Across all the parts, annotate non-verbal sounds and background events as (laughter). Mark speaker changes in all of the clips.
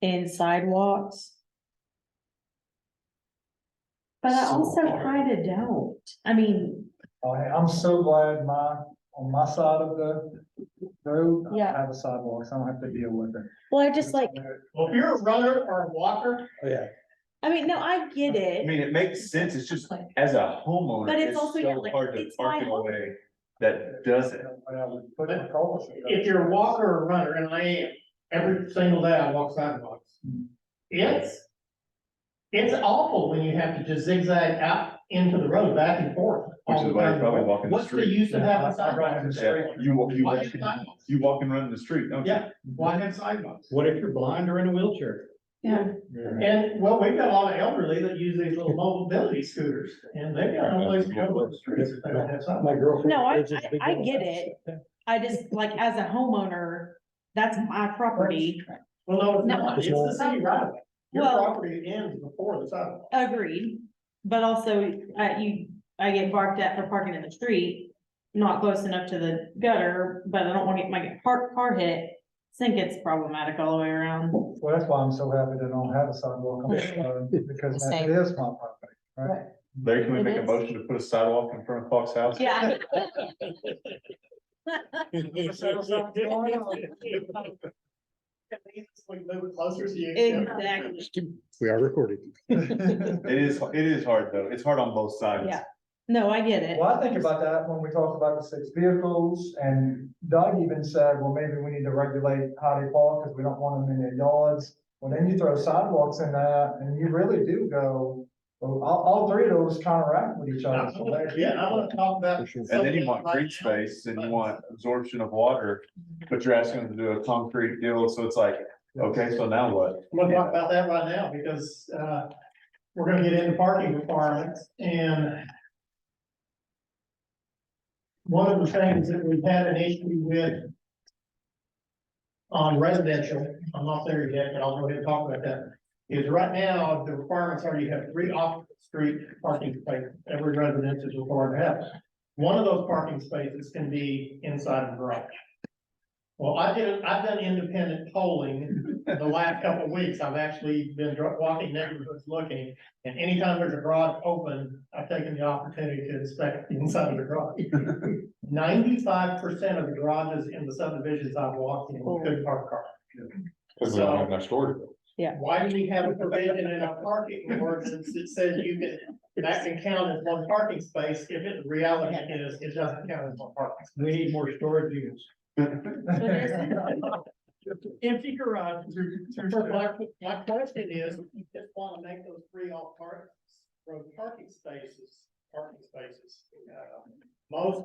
Speaker 1: in sidewalks. But I also kinda don't, I mean,
Speaker 2: Oh, hey, I'm so glad my, on my side of the road, I
Speaker 1: Yeah.
Speaker 2: have a sidewalk, so I don't have to deal with it.
Speaker 1: well, I just like,
Speaker 2: Well, if you're a runner or a walker. Yeah.
Speaker 1: I mean, no, I get
Speaker 3: I
Speaker 1: it,
Speaker 3: mean, it makes sense, it's just as a homeowner,
Speaker 1: But it's
Speaker 3: it's
Speaker 1: also, yeah,
Speaker 3: so
Speaker 1: like,
Speaker 3: hard to
Speaker 1: it's my
Speaker 3: park in a
Speaker 1: home.
Speaker 3: way that does it.
Speaker 4: If you're a walker or runner, and I am, every single day I walk sidewalks. It's. It's awful when you have to just zigzag out into the road back and forth.
Speaker 3: Which is why you probably walk in the
Speaker 4: What's the
Speaker 3: street.
Speaker 4: use of having
Speaker 2: Yeah, I- I ride in the
Speaker 4: sidewalks?
Speaker 3: Yeah, you walk, you
Speaker 4: Why
Speaker 3: walk,
Speaker 4: have sidewalks?
Speaker 3: you walk and run in the street, don't you?
Speaker 4: Yeah, why have sidewalks?
Speaker 5: What if you're blind or in a wheelchair?
Speaker 4: And, well, we've got a lot of elderly that use these little mobility scooters, and they've got no place to go with the streets if they don't have sidewalks.
Speaker 5: My girlfriend.
Speaker 1: No, I-
Speaker 5: lives in a
Speaker 1: I-
Speaker 5: big
Speaker 1: I
Speaker 5: yellow
Speaker 1: get
Speaker 5: house.
Speaker 1: I just, like, as a homeowner, that's my property,
Speaker 4: Well, no, it's
Speaker 1: No.
Speaker 4: not, it's the city right of way. Your
Speaker 1: Well-
Speaker 4: property ends before the sidewalk.
Speaker 1: agreed. But also, uh, you, I get barked at for parking in the street, not close enough to the gutter, but I don't wanna get my car, car hit. I think it's problematic all the way around.
Speaker 2: Well, that's why I'm so happy that I don't have a sidewalk on
Speaker 1: (laughs)
Speaker 2: the road, because that
Speaker 1: Same.
Speaker 2: is my property, right?
Speaker 3: Larry, can we
Speaker 1: It
Speaker 3: make a
Speaker 1: is.
Speaker 3: motion to put a sidewalk in front of Fox House?
Speaker 1: Yeah.
Speaker 4: We move closer so you. can-
Speaker 1: Exactly.
Speaker 5: We are recording.
Speaker 3: It is, it is hard though, it's hard on both sides.
Speaker 1: Yeah. No, I get it.
Speaker 2: Well, I think about that when we talked about the six vehicles, and Doug even said, well, maybe we need to regulate how they park, because we don't want them in their yards. Well, then you throw sidewalks in that, and you really do go, well, all, all three of those counteract with each other. so that-
Speaker 4: Yeah, I wanna talk about.
Speaker 3: And then you want green space and you want absorption of water, but you're asking them to do a concrete deal, so it's like, okay, so now what?
Speaker 4: I'm gonna talk about that right now, because, uh, we're gonna get into parking requirements and one of the things that we've had an issue with on residential, I'm not there yet, but I'll go ahead and talk about that, is right now, the requirements are you have three off-street parking spaces, every residence is required to have. One of those parking spaces can be inside the garage. Well, I did, I've done independent polling the last couple of weeks. I've actually been dr- walking neighborhoods looking. And anytime there's a garage open, I've taken the opportunity to inspect the inside of the garage. Ninety-five percent of the garages in the subdivisions I've walked in, you couldn't park cars.
Speaker 3: Cause
Speaker 4: we don't have
Speaker 3: enough storage.
Speaker 4: Why do we have a provision in our parking ordinance that says you can, that can count as one parking space if it, the reality is, it doesn't count as one parking? We need more
Speaker 2: (laughs)
Speaker 4: storage units. Empty garages. But my, my question is, you just wanna make those three all park, road parking spaces, parking spaces. uh, Most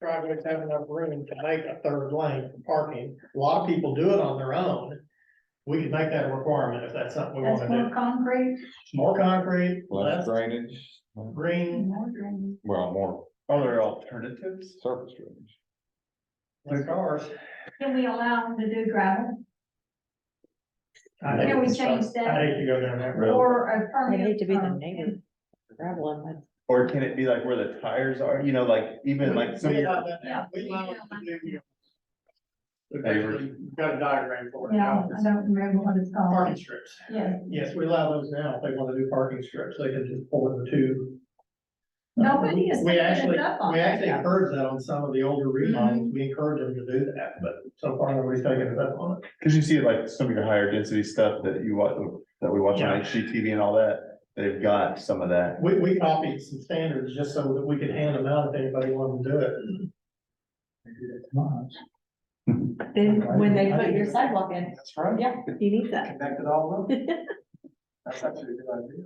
Speaker 4: driveways have enough room to make a third lane for parking. A lot of people do it on their own. We could make that a requirement if that's something we wanna do.
Speaker 6: concrete.
Speaker 4: More concrete,
Speaker 7: Less
Speaker 4: less
Speaker 7: drainage,
Speaker 4: green,
Speaker 7: well, more
Speaker 3: Are there alternatives?
Speaker 7: surface drainage.
Speaker 4: less cars.
Speaker 6: Can we allow them to do gravel
Speaker 4: I hate
Speaker 6: Can we
Speaker 4: to-
Speaker 6: change that?
Speaker 4: I hate to go down that road.
Speaker 6: or a permanent?
Speaker 1: They need to be the
Speaker 6: um,
Speaker 1: neighbor. Gravel in my
Speaker 3: Or can it be like where the tires are, you know, like even like some.
Speaker 4: We allow that
Speaker 6: Yeah.
Speaker 4: now. We allow it to do- We've
Speaker 3: Favor.
Speaker 4: got a diagram for it.
Speaker 6: Yeah, I don't remember what it's
Speaker 4: Parking
Speaker 6: called.
Speaker 4: strips.
Speaker 6: Yeah,
Speaker 4: Yes, we allow those now. If they want to do parking strips, they can just pull the two.
Speaker 6: Nobody is
Speaker 4: We
Speaker 6: picking it
Speaker 4: actually,
Speaker 6: up on
Speaker 4: we
Speaker 6: that. Mm-hmm.
Speaker 4: actually encourage that on some of the older remodels. We encourage them to do that, but so far nobody's taken it up on it.
Speaker 3: Cause you see like some of your higher density stuff that you watch, that we watch
Speaker 4: Yeah.
Speaker 3: on HGTV and all that, they've got some of that.
Speaker 4: We, we copied some standards just so that we could hand them out if anybody wanted to do it.
Speaker 1: Then when they put your sidewalk in,
Speaker 2: That's right.
Speaker 1: yeah, you need that.
Speaker 2: Connect it all up. That's actually a good idea.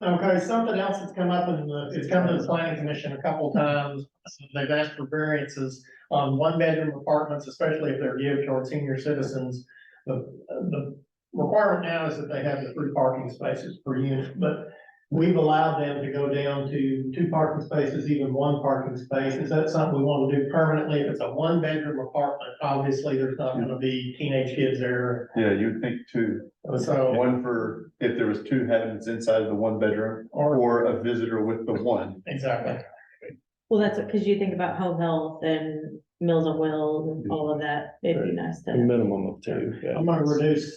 Speaker 4: Okay, something else that's come up in the, it's come to the planning commission a couple times. They've asked for variances on one bedroom apartments, especially if they're geared toward senior citizens. The, the requirement now is that they have the three parking spaces per unit, but we've allowed them to go down to two parking spaces, even one parking space. Is that something we want to do permanently? If it's a one bedroom apartment, obviously there's not gonna be teenage kids there.
Speaker 3: Yeah, you would think two,
Speaker 4: So,
Speaker 3: one for, if there was two heavens inside of the one bedroom,
Speaker 4: or,
Speaker 3: or a visitor with the one.
Speaker 4: exactly.
Speaker 1: Well, that's because you think about home health and Mills and Wills and all of that. It'd be nice to.
Speaker 5: Minimum of two, yeah.
Speaker 4: I'm gonna reduce